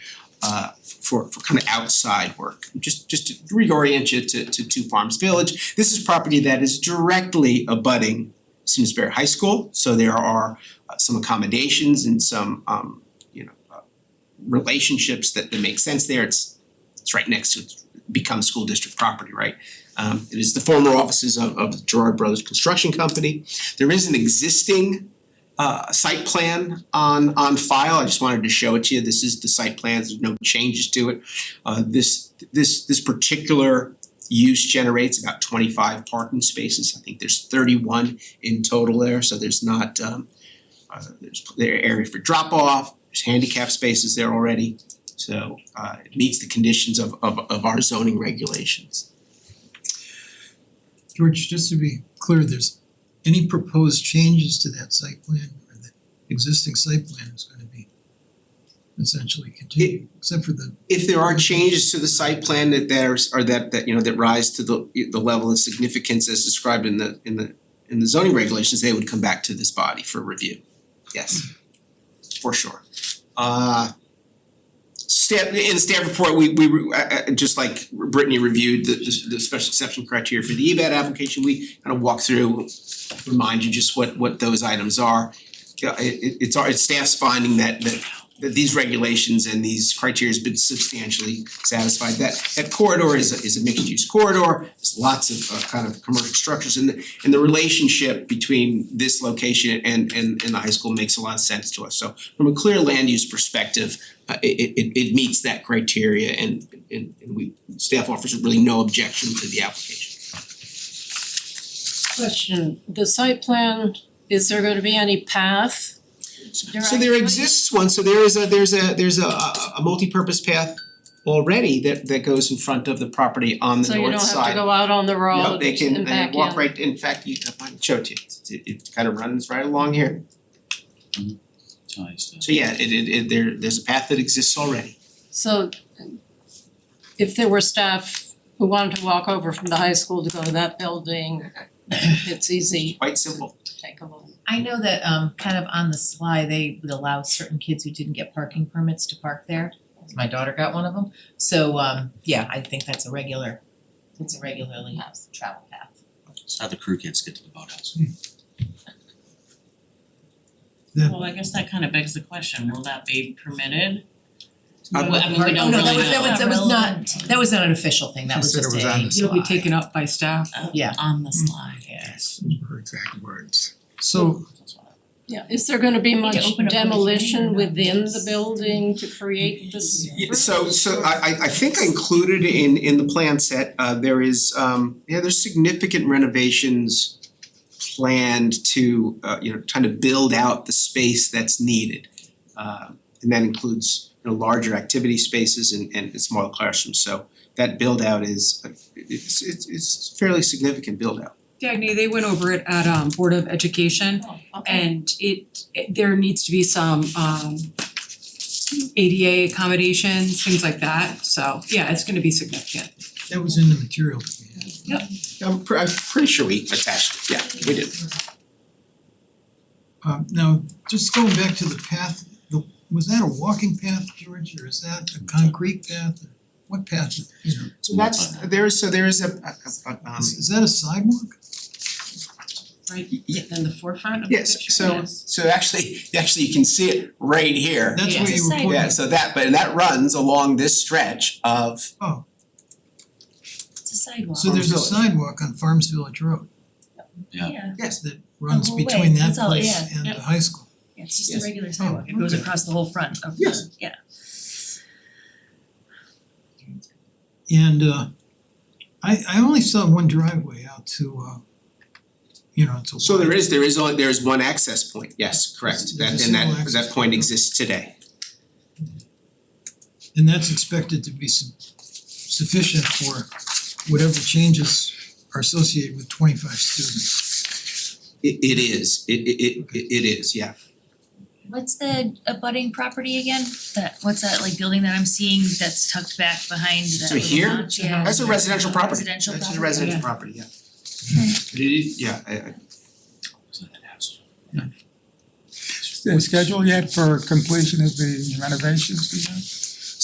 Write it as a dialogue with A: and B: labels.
A: uh for for kind of outside work. Just just to reorient you to to Two Farms Village. This is property that is directly abutting Simsbury High School, so there are uh, some accommodations and some um you know uh, relationships that that make sense there. It's it's right next to it's become school district property, right? Um it is the former offices of of Gerard Brothers Construction Company. There is an existing uh site plan on on file. I just wanted to show it to you. This is the site plan. There's no changes to it. Uh this this this particular use generates about twenty five parking spaces. I think there's thirty one in total there, so there's not um uh there's there are area for drop off, there's handicap spaces there already. So uh it meets the conditions of of of our zoning regulations.
B: George, just to be clear, there's any proposed changes to that site plan or the existing site plan is gonna be essentially continued, except for the,
A: If there are changes to the site plan that there's or that that you know that rise to the the level of significance as described in the in the in the zoning regulations, they would come back to this body for review. Yes, for sure. Uh staff in the staff report, we we re- uh uh, just like Brittany reviewed the the the special exception criteria for the E EBAT application, we kind of walk through, remind you just what what those items are. Yeah, it it it's our it's staff's finding that that that these regulations and these criteria has been substantially satisfied. That that corridor is a is a mixed use corridor, there's lots of uh kind of commercial structures and the and the relationship between this location and and and the high school makes a lot of sense to us. So from a clear land use perspective, uh it it it it meets that criteria and and and we staff offers really no objection to the application.
C: Question, the site plan, is there gonna be any path?
A: So there exists one, so there is a, there's a, there's a a a multipurpose path already that that goes in front of the property on the
C: So you
A: north
C: don't have to
A: side.
C: go out on the
A: No,
C: road
A: they can,
C: and
A: they
C: back
A: walk
C: in?
A: right, in fact, you I might show it to you, It's- it it kind of runs right along here.
D: ties to.
A: So yeah, it it it there there's a path that exists already.
C: So if there were staff who wanted to walk over from the high school to go to that building, it's easy
A: Quite simple.
C: to take a little.
E: I know that um kind of on the sly, they would allow certain kids who didn't get parking permits to park there. My daughter got one of them, so um yeah, I think that's a regular, it's a regularly used travel path.
D: It's how the crew kids get to the boathouse.
F: Well, I guess that kind of begs the question, will that be permitted?
A: Uh,
F: Well, I mean, we
E: Oh,
F: don't
E: no, that
F: really
E: was that was
F: know
E: that was not, that was not an official thing, that
B: She
E: was
B: said it
E: just a.
B: was on the You'll be slide. taken
E: up by staff. Mm. Yeah.
F: Oh, on the slide.
E: Yes.
B: her exact words. So
C: Yeah, is there gonna be much
E: open up the
C: demolition
E: container.
C: within the building to create this?
A: Yeah, so so I I I think I included in in the plan set, uh there is um yeah, there's significant renovations planned to uh you know, trying to build out the space that's needed. Uh and that includes, you know, larger activity spaces and and smaller classrooms, so that build out is it's it's it's fairly significant build out.
G: Dagny, they went over it at um Board of Education
C: Oh, okay.
G: and it, it- there needs to be some um ADA accommodations, things like that, so yeah, it's gonna be significant.
B: that was in the material that we had.
A: I'm pre- I'm pretty sure we attached it, yeah, we did.
B: Um now, just going back to the path, the was that a walking path, George, or is that a concrete path? What path, you know,
A: So that's there is, so there is a a a- um
B: is is that a sidewalk?
A: Yeah.
E: In the forefront of the picture,
A: Yes, so so actually, actually you can see it right here.
B: That's
E: Yeah.
B: where you were pointing.
A: Yeah, so that, but that runs along this stretch of,
E: It's a sidewalk.
B: So there's a
A: Farms
B: sidewalk on Farms Village Road
D: Yeah.
A: yes,
B: that runs
E: whole way,
B: between that
E: that's all,
B: place
E: yeah,
B: and
F: yeah.
B: the high school.
E: Yeah, it's just
A: Yes.
E: a regular sidewalk, Oh, it goes
B: okay.
E: across the whole front of the,
A: Yes.
E: yeah.
B: And uh I I only saw one driveway out to uh you know, to
A: so there is, there is only, there is one access point, yes, correct, that
B: There's a
A: and
B: single
A: that
B: access
A: that point
B: point.
A: exists today.
B: And that's expected to be su- sufficient for whatever changes are associated with twenty five students.
A: It it is, it it it it is, yeah.
H: What's the abutting property again? That, what's that like building that I'm seeing that's tucked back behind that
A: So
H: little
A: here?
H: notch? Yeah.
A: That's a residential property,
H: Residential
A: that's
H: property.
A: a residential property, yeah. It is, yeah, I I
D: It's not that house.
I: the schedule yet for completion of the renovations, do you know?